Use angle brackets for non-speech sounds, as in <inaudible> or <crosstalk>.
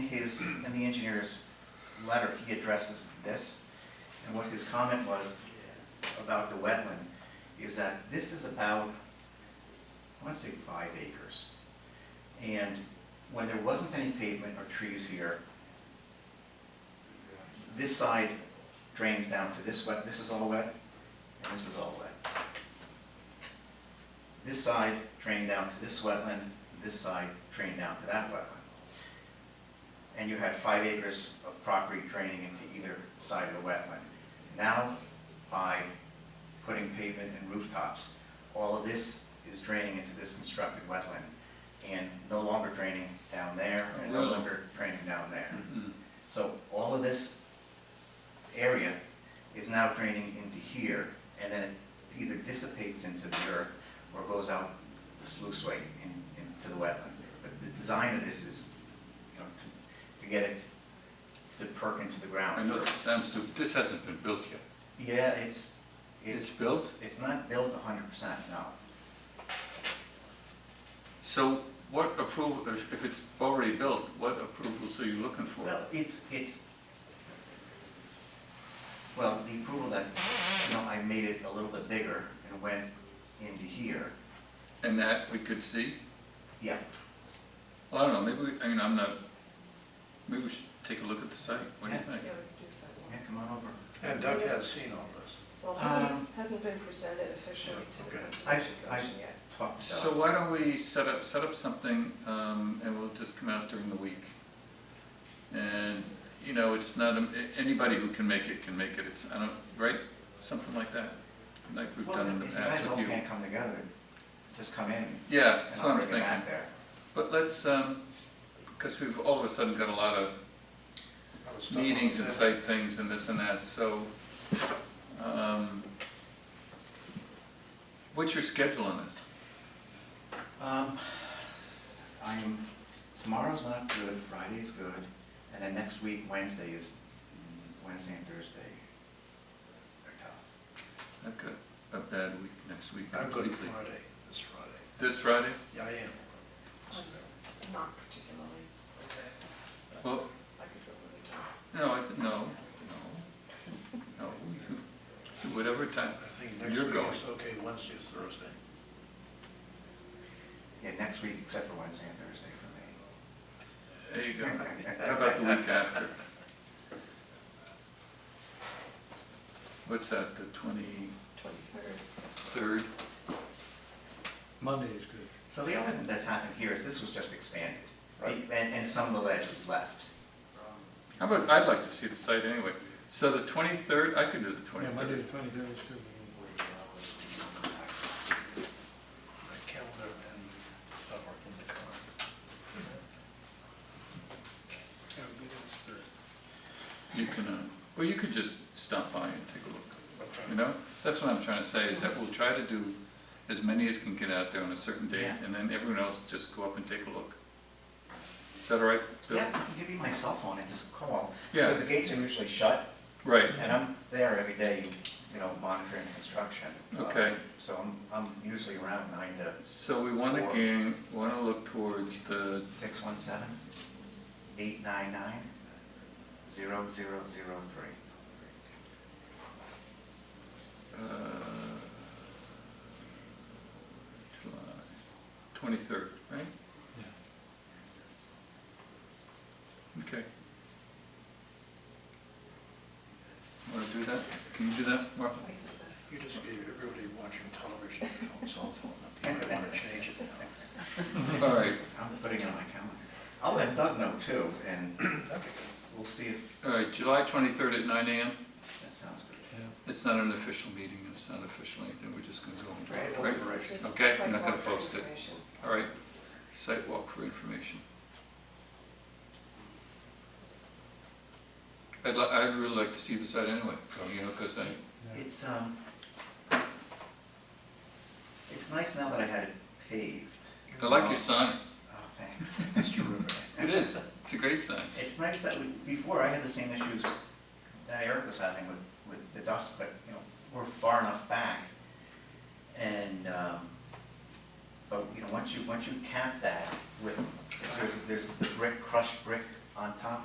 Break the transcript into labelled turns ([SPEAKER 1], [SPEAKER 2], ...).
[SPEAKER 1] his, in the engineer's letter, he addresses this, and what his comment was about the wetland, is that this is about, I want to say five acres. And when there wasn't any pavement or trees here, this side drains down to this wet, this is all wet, and this is all wet. This side drained down to this wetland, this side drained down to that wetland. And you had five acres of property draining into either side of the wetland. Now, by putting pavement and rooftops, all of this is draining into this constructed wetland, and no longer draining down there, and no
[SPEAKER 2] Really?
[SPEAKER 1] longer draining down there.
[SPEAKER 2] Mhm.
[SPEAKER 1] So all of this area is now draining into here, and then it either dissipates into the earth or goes out the sluice way in- into the wetland. But the design of this is, you know, to, to get it to perk into the
[SPEAKER 2] I
[SPEAKER 1] ground.
[SPEAKER 2] know this sounds stupid, this hasn't been built yet.
[SPEAKER 1] Yeah, it's,
[SPEAKER 2] It's
[SPEAKER 1] it's,
[SPEAKER 2] built?
[SPEAKER 1] it's not built hundred percent, no.
[SPEAKER 2] So what approval, if if it's already built, what approvals are you looking for?
[SPEAKER 1] Well, it's, it's, well, the approval that, you know, I made it a little bit bigger and went into here,
[SPEAKER 2] And that we could see?
[SPEAKER 1] yeah,
[SPEAKER 2] Well, I don't know, maybe, we- I mean, I'm not, maybe we should take a look at the site, what do you
[SPEAKER 1] Yeah.
[SPEAKER 2] think?
[SPEAKER 3] Yeah, we could do sidewalk.
[SPEAKER 1] yeah, come on over.
[SPEAKER 4] And Doug has seen all this.
[SPEAKER 3] Well, it
[SPEAKER 1] Um,
[SPEAKER 3] hasn't, hasn't been presented officially to the
[SPEAKER 4] Okay.
[SPEAKER 3] Conservation
[SPEAKER 1] I- I-
[SPEAKER 3] Commission yet.
[SPEAKER 1] Talk to
[SPEAKER 2] So
[SPEAKER 1] Doug.
[SPEAKER 2] why don't we set up, set up something, um, and we'll just come out during the week? And, you know, it's not, um, a- anybody who can make it can make it, it's, I don't, right? Something like that, like we've done in the past
[SPEAKER 1] If you guys all
[SPEAKER 2] with you.
[SPEAKER 1] can't come together, just come in,
[SPEAKER 2] Yeah,
[SPEAKER 1] and
[SPEAKER 2] that's what
[SPEAKER 1] I'll
[SPEAKER 2] I'm
[SPEAKER 1] bring it
[SPEAKER 2] thinking.
[SPEAKER 1] back there.
[SPEAKER 2] But let's, um, because we've all of a sudden got a lot of
[SPEAKER 4] That was stuff on
[SPEAKER 2] meetings
[SPEAKER 4] the-
[SPEAKER 2] and site things and this and that, so, um, what's your schedule on this?
[SPEAKER 1] Um, I'm, tomorrow's not good, Friday's good, and then next week, Wednesday is, Wednesday and Thursday are tough.
[SPEAKER 2] I've got a bad week next week
[SPEAKER 4] I'm good
[SPEAKER 2] completely.
[SPEAKER 4] Friday, this Friday.
[SPEAKER 2] This Friday?
[SPEAKER 4] Yeah, I am.
[SPEAKER 3] Not particularly,
[SPEAKER 2] Well,
[SPEAKER 3] I could go really dark.
[SPEAKER 2] no, I, th- no, no, no, you- do whatever time.
[SPEAKER 4] I think next
[SPEAKER 2] You're
[SPEAKER 4] week
[SPEAKER 2] going.
[SPEAKER 4] is okay, Wednesday is Thursday.
[SPEAKER 1] Yeah, next week, except for Wednesday and Thursday for me.
[SPEAKER 2] There you go. How about the week after? What's that, the twenty-third?
[SPEAKER 3] Twenty-third,
[SPEAKER 5] Monday is good.
[SPEAKER 1] So the only thing that's happened here is this was just expanded,
[SPEAKER 4] Right.
[SPEAKER 1] and, and some of the ledge was left.
[SPEAKER 2] How about, I'd like to see the site anyway. So the 23rd, I could do the
[SPEAKER 5] Yeah, Monday the
[SPEAKER 2] 23rd.
[SPEAKER 5] twenty-third is good.
[SPEAKER 4] My calendar and stuff are in the car.
[SPEAKER 2] You can, uh, well, you could just stop by and take a look,
[SPEAKER 4] What time?
[SPEAKER 2] you know? That's what I'm trying to say, is that we'll try to do as many as can get out there on a certain date,
[SPEAKER 1] Yeah.
[SPEAKER 2] and then everyone else just go up and take a look. Is that all right? Bill?
[SPEAKER 1] Yeah, I can give you my cell phone and just call.
[SPEAKER 2] Yeah,
[SPEAKER 1] Because the gates are usually shut,
[SPEAKER 2] right.
[SPEAKER 1] And I'm there every day, you know, monitoring construction.
[SPEAKER 2] Okay.
[SPEAKER 1] Um, So I'm, I'm usually around nine to
[SPEAKER 2] So we want to
[SPEAKER 1] Four.
[SPEAKER 2] gain, want to look towards the,
[SPEAKER 1] six one seven, eight nine nine, zero zero zero three.
[SPEAKER 2] uh, July 23rd, right? Okay. Want to do that? Can you do that, Martha?
[SPEAKER 3] I could do that.
[SPEAKER 4] You just gave everybody watching television a cell phone, I think I want to change it now.
[SPEAKER 2] All right,
[SPEAKER 1] I'm putting it on my calendar. I'll let Doug know too, and <clears throat>
[SPEAKER 4] That'd be good.
[SPEAKER 1] we'll see if
[SPEAKER 2] all right, July 23rd at nine AM.
[SPEAKER 1] that sounds good.
[SPEAKER 5] Yeah.
[SPEAKER 2] It's not an official meeting, it's not official anything, we're just going to go and
[SPEAKER 4] Right,
[SPEAKER 2] talk, right?
[SPEAKER 3] It's
[SPEAKER 4] deliberation.
[SPEAKER 3] just
[SPEAKER 2] Okay, I'm not
[SPEAKER 3] sidewalk
[SPEAKER 2] gonna post it.
[SPEAKER 3] information.
[SPEAKER 2] All right, site walk for information. I'd li, I'd really like to see the site anyway, so, you know, because I,
[SPEAKER 5] Yeah.
[SPEAKER 1] It's, um, it's nice now that I had it paved.
[SPEAKER 2] I like your sign.
[SPEAKER 1] Oh, thanks. <laughs>
[SPEAKER 4] That's terrific.
[SPEAKER 2] It is, it's a great <laughs> sign.
[SPEAKER 1] It's nice that we, before I had the same issues that Eric was having with, with the dust, but, you know, we're far enough back. And, um, but, you know, once you, once you cap that with, there's, there's the brick, crushed brick